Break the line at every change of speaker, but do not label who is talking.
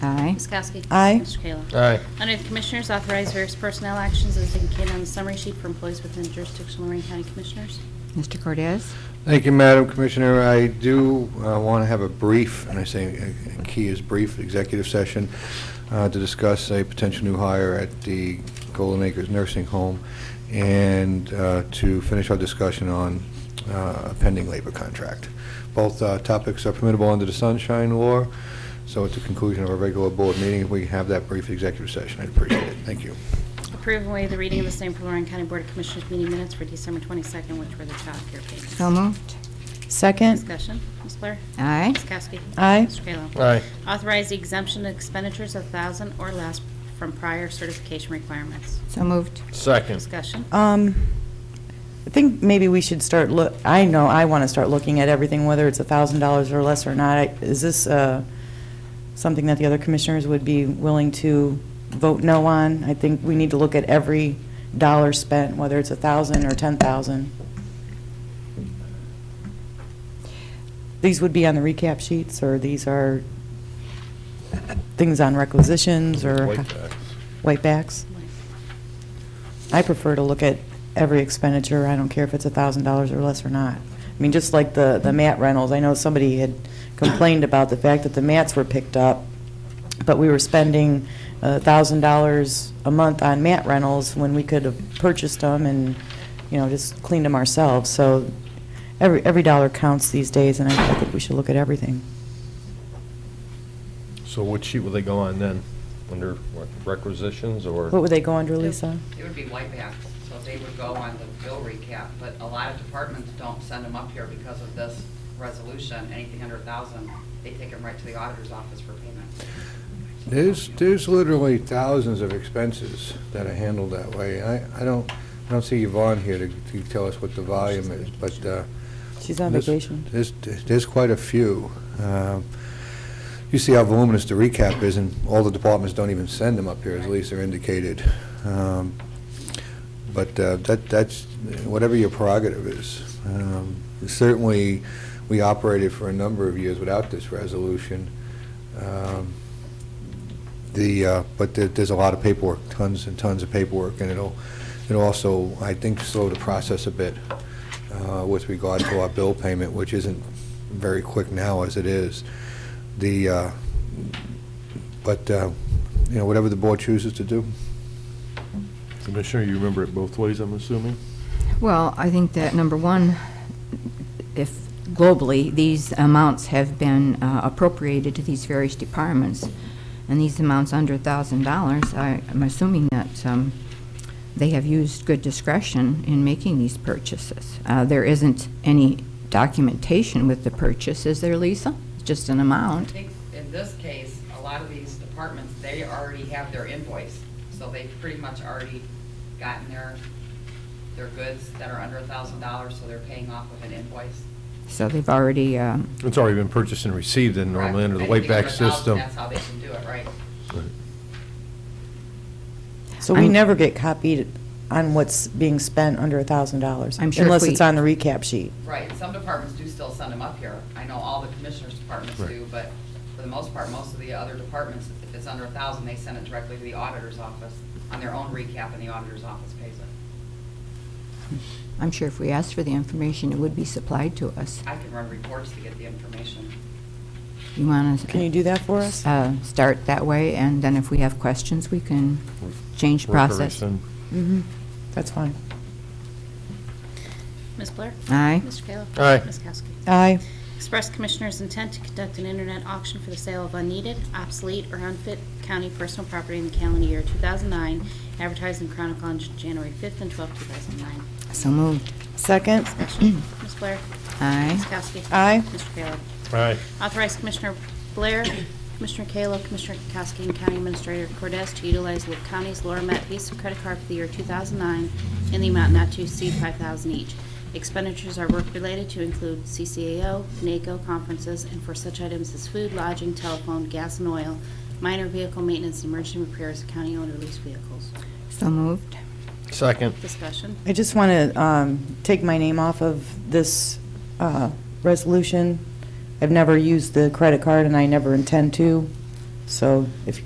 Aye.
Ms. Kowski.
Aye.
Mr. Kayla.
Aye.
Under the Commissioners, authorize various personnel actions as indicated on the summary sheet for employees within jurisdiction of Lorraine County Commissioners.
Mr. Cordez?
Thank you, Madam Commissioner. I do want to have a brief, and I say uh, key is brief, executive session uh, to discuss a potential new hire at the Golden Acres Nursing Home and uh, to finish our discussion on uh, a pending labor contract. Both uh, topics are permissible under the sunshine law, so at the conclusion of our regular board meeting, if we can have that brief executive session, I'd appreciate it. Thank you.
Approve and waive the reading of the same for Lorraine County Board of Commissioners meeting minutes for December 22nd, which were the child care payments.
So moved.
Second.
Discussion, Ms. Blair?
Aye.
Ms. Kowski?
Aye.
Mr. Kayla?
Aye.
Authorize the exemption of expenditures of 1000 or less from prior certification requirements.
So moved.
Second.
Discussion,
Um, I think maybe we should start look, I know I want to start looking at everything, whether it's a thousand dollars or less or not. I- Is this, uh, something that the other commissioners would be willing to vote no on? I think we need to look at every dollar spent, whether it's a thousand or ten thousand. These would be on the recap sheets, or these are things on requisitions, or? Whitebacks? I prefer to look at every expenditure, I don't care if it's $1,000 or less or not. I mean, just like the, the mat rentals, I know somebody had complained about the fact that the mats were picked up, but we were spending uh, $1,000 a month on mat rentals when we could have purchased them and, you know, just cleaned them ourselves. So every, every dollar counts these days, and I I think we should look at everything.
So what sheet will they go on then? Under what, requisitions or?
What would they go under, Lisa?
It would be white back, so they would go on the bill recap, but a lot of departments don't send them up here because of this resolution, anything under a thousand, they take them right to the auditor's office for payment.
There's, there's literally thousands of expenses that are handled that way. I, I don't, I don't see Yvonne here to, to tell us what the volume is, but, uh,
She's on
there's-
vacation.
There's, there's quite a few. Um, You see how voluminous the recap is, and all the departments don't even send them up here, as Lisa indicated. Um, But uh, that, that's, whatever your prerogative is. Um, Certainly, we operated for a number of years without this resolution. Um, The, uh, but there- there's a lot of paperwork, tons and tons of paperwork, and it'll, it'll also, I think, slow the process a bit uh, with regard to our bill payment, which isn't very quick now as it is. The, uh, but, uh, you know, whatever the board chooses to do.
Commissioner, you remember it both ways, I'm assuming?
Well, I think that, number one, if globally, these amounts have been uh, appropriated to these various departments, and these amounts under $1,000, I- I'm assuming that um, they have used good discretion in making these purchases. Uh, There isn't any documentation with the purchase, is there, Lisa? Just an
I
amount?
think in this case, a lot of these departments, they already have their invoice, so they've pretty much already gotten their, their goods that are under a thousand dollars, so they're paying off of an invoice.
So they've already, um,
It's already been purchased and received and normally under the
Anything
whiteback
under a thousand,
system.
That's how they can do it, right?
So we
I'm-
never get copied on what's being spent under a thousand dollars?
I'm sure if
Unless
we-
it's on the recap sheet.
Right, some departments do still send them up here. I know all the commissioners' departments
Right.
do, but for the most part, most of the other departments, if it's under a thousand, they send it directly to the auditor's office on their own recap, and the auditor's office pays it.
I'm sure if we asked for the information, it would be supplied to us.
I can run reports to get the information.
You want to...
Can you do that for us?
uh, start that way, and then if we have questions, we can change
Work or
process.
rescind.
Mm-hmm. That's fine.
Ms. Blair?
Aye.
Mr. Kayla?
Aye.
Ms. Kowski?
Aye.
Express Commissioners' intent to conduct an internet auction for the sale of unneeded, obsolete, or unfit county personal property in the calendar year 2009, advertised in Chronicle on January 5th and 12th, 2009.
So moved.
Second?
Discussion, Ms. Blair? Ms.
Aye.
Kowski?
Aye.
Mr. Kayla?
Aye.
Authorize Commissioner Blair, Commissioner Kayla, Commissioner Kukowski, and County Administrator Cordes to utilize Lake County's Laura Met Visa credit card for the year 2009 in the amount not to exceed 5000 each. Expenditures are work-related to include CCAO, NACO conferences, and for such items as food, lodging, telephone, gas and oil, minor vehicle maintenance, and emergency repairs of county-owned or leased vehicles.
So moved.
Second.
Discussion.
I just want to take my name off of this uh, resolution. I've never used the credit card, and I never intend to, so if